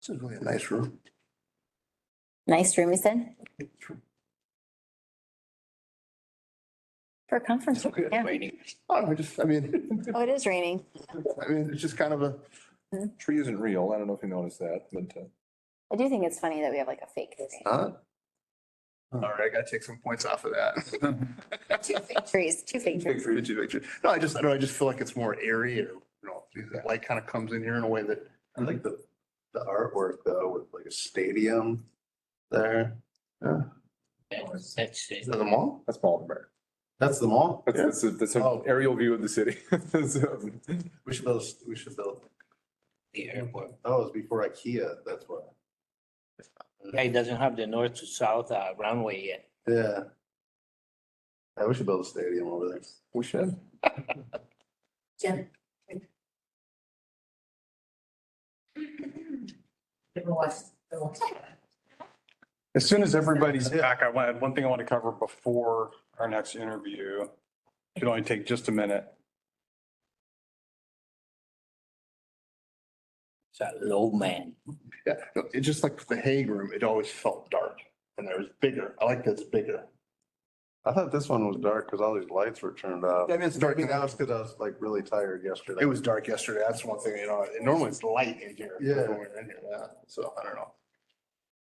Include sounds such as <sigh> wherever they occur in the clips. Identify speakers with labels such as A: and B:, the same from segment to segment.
A: This is really a nice room.
B: Nice room, you said, for a conference. room, Yeah.
A: I don't know, just, I mean, <laughs>
B: Oh, it is raining.
A: I mean, it's just kind of a,
C: Tree isn't real. I don't know if you noticed that, but. uh,
B: I do think it's funny that we have like a fake tree.
A: huh? All right, I gotta take some points off of <laughs>
B: Two
A: that.
B: fake trees, two fake trees.
A: Big for you, too, big for you. No, I just, I don't know, I just feel like it's more airy or, you know, the light kind of comes in here in a way that.
D: I like the, the artwork though, with like a stadium there. Yeah,
E: That's it.
A: Is that the mall?
C: That's Baldenberg.
D: That's the mall?
C: That's, that's, a- that's an
D: Oh.
C: aerial view of the city. <laughs> So,
D: We should build, we should build,
E: the airport.
D: oh, it's before Ikea, that's why.
E: It doesn't have the north to south uh, runway yet.
D: Yeah. Yeah, we should build a stadium over there.
C: We should.
F: Jen. Never watched, never watched.
G: As soon as everybody's back, I want, one thing I want to cover before our next interview. Should only take just a minute.
E: It's a low man.
A: Yeah, no, it's just like the Hague room, it always felt dark and there was bigger. I like that it's bigger.
D: I thought this one was dark because all these lights were turned off.
A: Yeah, I mean, it's
D: I
A: dark.
D: mean, that was because I was like really tired yesterday.
A: It was dark yesterday. That's one thing, you know, and normally it's light in here.
D: Yeah.
A: when we're in here, yeah. So I don't know.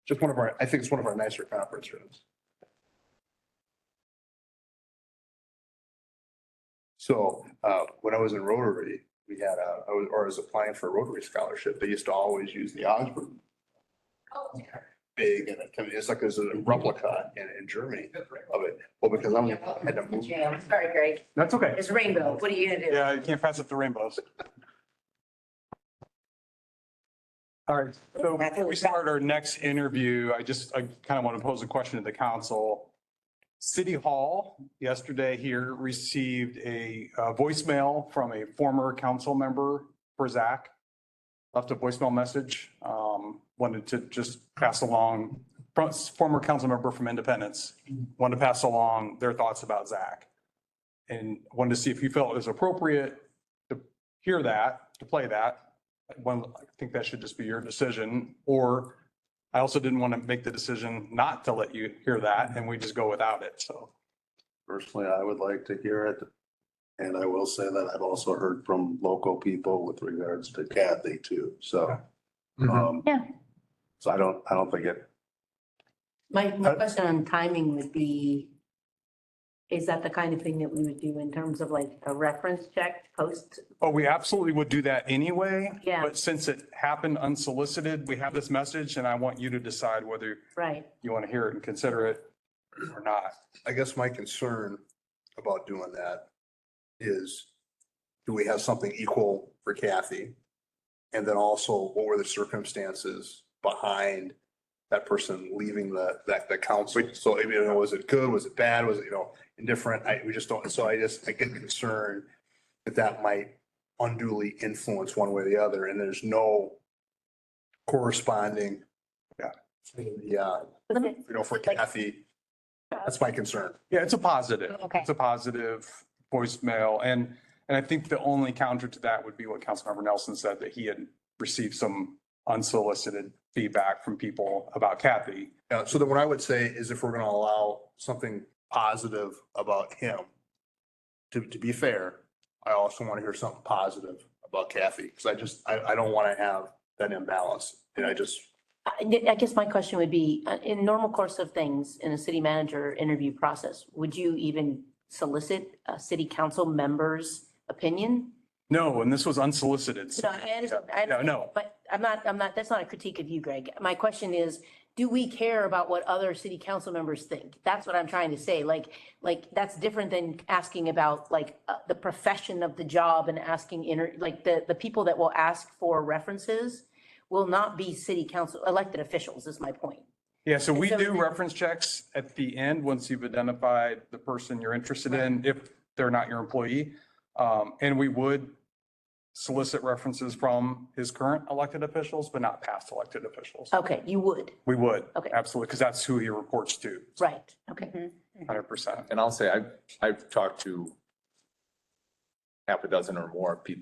A: Just one of our, I think it's one of our nicer conference rooms. So, uh, when I was in Rotary, we had a, I was- or I was applying for a Rotary scholarship. They used to always use the Augsburg.
B: Oh,
A: Big and it- I mean, it's like there's a replica in, in Germany of it. Well, because I'm, I had to move.
F: Jam. Sorry, Greg.
G: That's okay.
F: It's rainbow. What are you gonna do?
G: Yeah, you can't pass up the rainbows. All right, so before we start our next interview, I just, I kind of want to pose a question to the council. City Hall yesterday here received a uh, voicemail from a former council member for Zach. Left a voicemail message, um, wanted to just pass along, from- former council member from Independence, wanted to pass along their thoughts about Zach and wanted to see if you felt it was appropriate to hear that, to play that. One, I think that should just be your decision, or I also didn't want to make the decision not to let you hear that and we just go without it, so.
D: Personally, I would like to hear it. And I will say that I've also heard from local people with regards to Kathy too, so. um,
B: Yeah.
D: So I don't, I don't think it
F: My,
G: Uh,
F: my question on timing would be, is that the kind of thing that we would do in terms of like a reference check post?
G: Oh, we absolutely would do that anyway.
F: Yeah.
G: But since it happened unsolicited, we have this message and I want you to decide whether
F: Right.
G: you want to hear it and consider it or not.
A: I guess my concern about doing that is, do we have something equal for Kathy? And then also, what were the circumstances behind that person leaving the, that, the council? So, I mean, was it good, was it bad, was it, you know, indifferent? I, we just don't, so I just, I get concerned that that might unduly influence one way or the other, and there's no corresponding.
G: Yeah.
A: Yeah,
B: Was it-
A: you know, for Kathy, that's my concern.
G: Yeah, it's a positive.
B: Okay.
G: It's a positive voicemail. And, and I think the only counter to that would be what Councilmember Nelson said, that he had received some unsolicited feedback from people about Kathy.
A: Yeah, so then what I would say is if we're gonna allow something positive about him, to, to be fair, I also want to hear something positive about Kathy, because I just, I, I don't want to have that imbalance. And I just,
F: I I guess my question would be, uh, in normal course of things, in a city manager interview process, would you even solicit a city council member's opinion?
G: No, and this was unsolicited.
F: No, I understand, I
G: No,
F: understand,
G: no.
F: but I'm not, I'm not, that's not a critique of you, Greg. My question is, do we care about what other city council members think? That's what I'm trying to say, like, like, that's different than asking about, like, uh, the profession of the job and asking inner, like, the, the people that will ask for references will not be city council, elected officials is my point.
G: Yeah, so we
F: So-
G: do reference checks at the end, once you've identified the person you're interested in, if they're not your employee. Um, and we would solicit references from his current elected officials, but not past elected officials.
F: Okay, you would,
G: We would.
F: Uh, Okay.
G: Absolutely, because that's who he reports to,
F: right, okay.
B: Mm-hmm.
G: hundred percent.
C: And I'll say, I've, I've talked to half a dozen or more people